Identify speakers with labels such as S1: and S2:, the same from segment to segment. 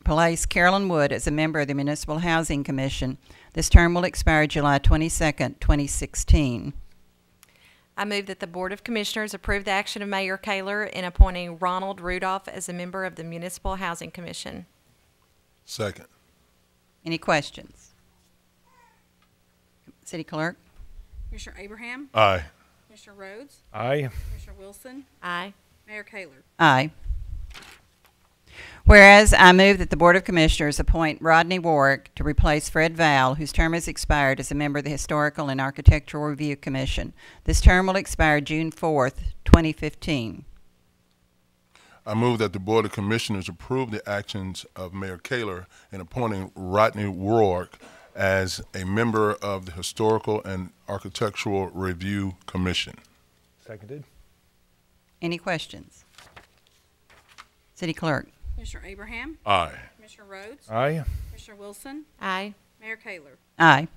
S1: replace Carolyn Wood as a member of the Municipal Housing Commission. This term will expire July 22nd, 2016.
S2: I move that the Board of Commissioners approve the action of Mayor Kayler in appointing Ronald Rudolph as a member of the Municipal Housing Commission.
S3: Second.
S1: Any questions? City Clerk?
S4: Commissioner Abraham,
S3: Aye.
S4: Commissioner Rhodes,
S5: Aye.
S4: Commissioner Wilson,
S2: Aye.
S4: Mayor Kayler.
S1: Aye. Whereas I move that the Board of Commissioners appoint Rodney Warwick to replace Fred Val, whose term has expired as a member of the Historical and Architectural Review Commission. This term will expire June 4th, 2015.
S3: I move that the Board of Commissioners approve the actions of Mayor Kaler in appointing Rodney Roark as a member of the Historical and Architectural Review Commission.
S5: Seconded.
S1: Any questions? City Clerk?
S4: Commissioner Abraham,
S3: Aye.
S4: Commissioner Rhodes,
S5: Aye.
S4: Commissioner Wilson,
S2: Aye.
S4: Mayor Kayler.
S1: Aye.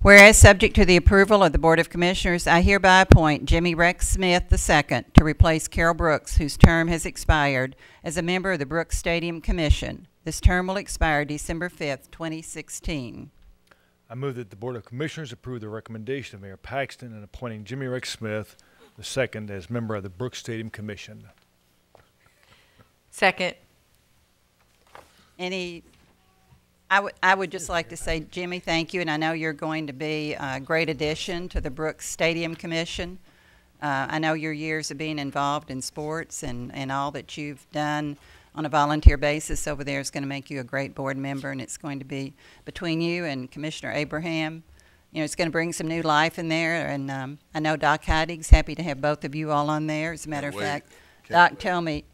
S1: Whereas, subject to the approval of the Board of Commissioners, I hereby appoint Jimmy Rex Smith II to replace Carol Brooks, whose term has expired, as a member of the Brooks Stadium Commission. This term will expire December 5th, 2016.
S5: I move that the Board of Commissioners approve the recommendation of Mayor Paxton in appointing Jimmy Rick Smith II as member of the Brooks Stadium Commission.
S2: Second.
S1: Any, I would, I would just like to say, Jimmy, thank you, and I know you're going to be a great addition to the Brooks Stadium Commission. Uh, I know your years of being involved in sports and, and all that you've done on a volunteer basis over there is going to make you a great board member, and it's going to be between you and Commissioner Abraham. You know, it's going to bring some new life in there, and um, I know Doc Heidig's happy to have both of you all on there. As a matter of
S3: wait.
S1: fact,
S3: Can't
S1: Doc
S3: wait.
S1: told me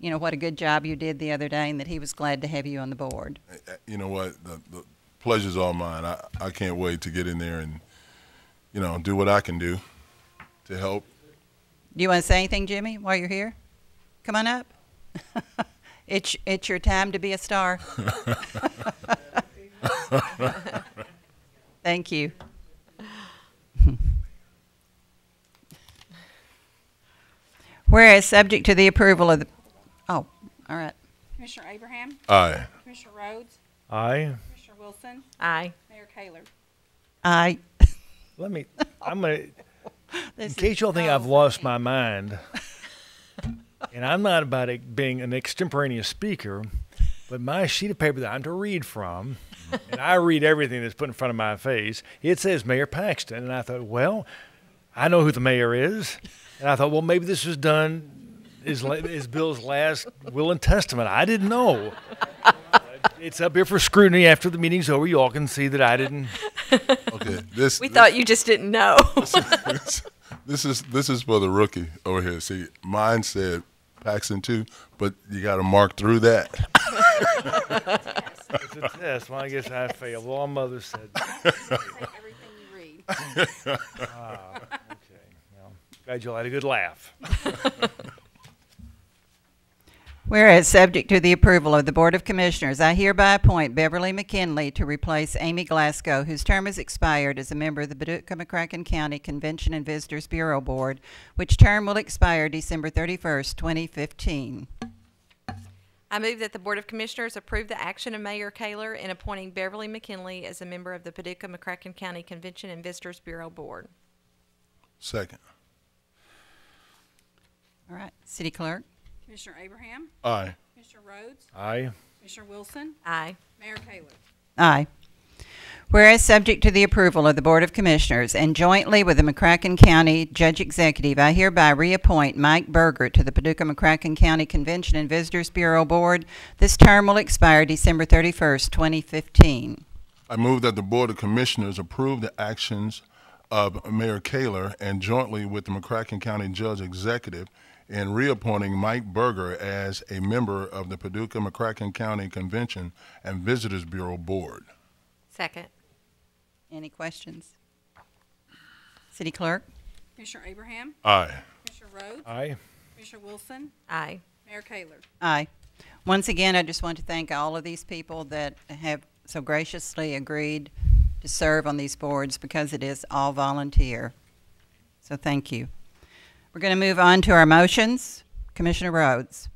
S1: you know, what a good job you did the other day and that he was glad to have you on the board.
S3: Uh, uh, You know what? The, the pleasure's all mine. I, I can't wait to get in there and, you know, do what I can do to help.
S1: Do you want to say anything, Jimmy, while you're here? Come on up. it's, it's your time to be a star. Thank you. Whereas, subject to the approval of the, oh, all right.
S4: Commissioner Abraham,
S3: Aye.
S4: Commissioner Rhodes,
S5: Aye.
S4: Commissioner Wilson,
S2: Aye.
S4: Mayor Kayler.
S1: I,
S5: Let me, I'm gonna,
S1: this
S5: in
S1: is-
S5: case y'all think I've lost my mind, and I'm not about it being an extemporaneous speaker, but my sheet of paper that I'm to read from, and I read everything that's put in front of my face, it says Mayor Paxton. And I thought, well, I know who the mayor is. And I thought, well, maybe this was done is, la- is Bill's last will and testament. I didn't know. It's up here for scrutiny after the meeting's over. You all can see that I didn't.
S3: Okay. This,
S2: We thought you just didn't know.
S3: this is this is for the rookie over here. See, mine said Paxton too, but you got to mark through that.
S5: It's a test. Well, I guess I failed. Well, my mother said.
S4: Take everything you read.
S5: Okay. Well, glad you all had a good laugh.
S1: Whereas, subject to the approval of the Board of Commissioners, I hereby appoint Beverly McKinley to replace Amy Glasgow, whose term has expired as a member of the Paducah McCracken County Convention and Visitors Bureau Board, which term will expire December 31st, 2015.
S2: I move that the Board of Commissioners approve the action of Mayor Kayler in appointing Beverly McKinley as a member of the Paducah McCracken County Convention and Visitors Bureau Board.
S3: Second.
S1: All right, City Clerk?
S4: Commissioner Abraham,
S3: Aye.
S4: Commissioner Rhodes,
S5: Aye.
S4: Commissioner Wilson,
S2: Aye.
S4: Mayor Kayler.
S1: Aye. Whereas subject to the approval of the Board of Commissioners and jointly with the McCracken County Judge Executive, I hereby reappoint Mike Berger to the Paducah McCracken County Convention and Visitors Bureau Board. This term will expire December 31st, 2015.
S3: I move that the Board of Commissioners approve the actions of Mayor Kaler and jointly with the McCracken County Judge Executive in reappointing Mike Berger as a member of the Paducah McCracken County Convention and Visitors Bureau Board.
S2: Second.
S1: Any questions? City Clerk?
S4: Commissioner Abraham,
S3: Aye.
S4: Commissioner Rhodes,
S5: Aye.
S4: Commissioner Wilson,
S2: Aye.
S4: Mayor Kayler.
S1: Aye. Once again, I just want to thank all of these people that have so graciously agreed to serve on these boards because it is all volunteer. So thank you. We're going to move on to our motions. Commissioner Rhodes.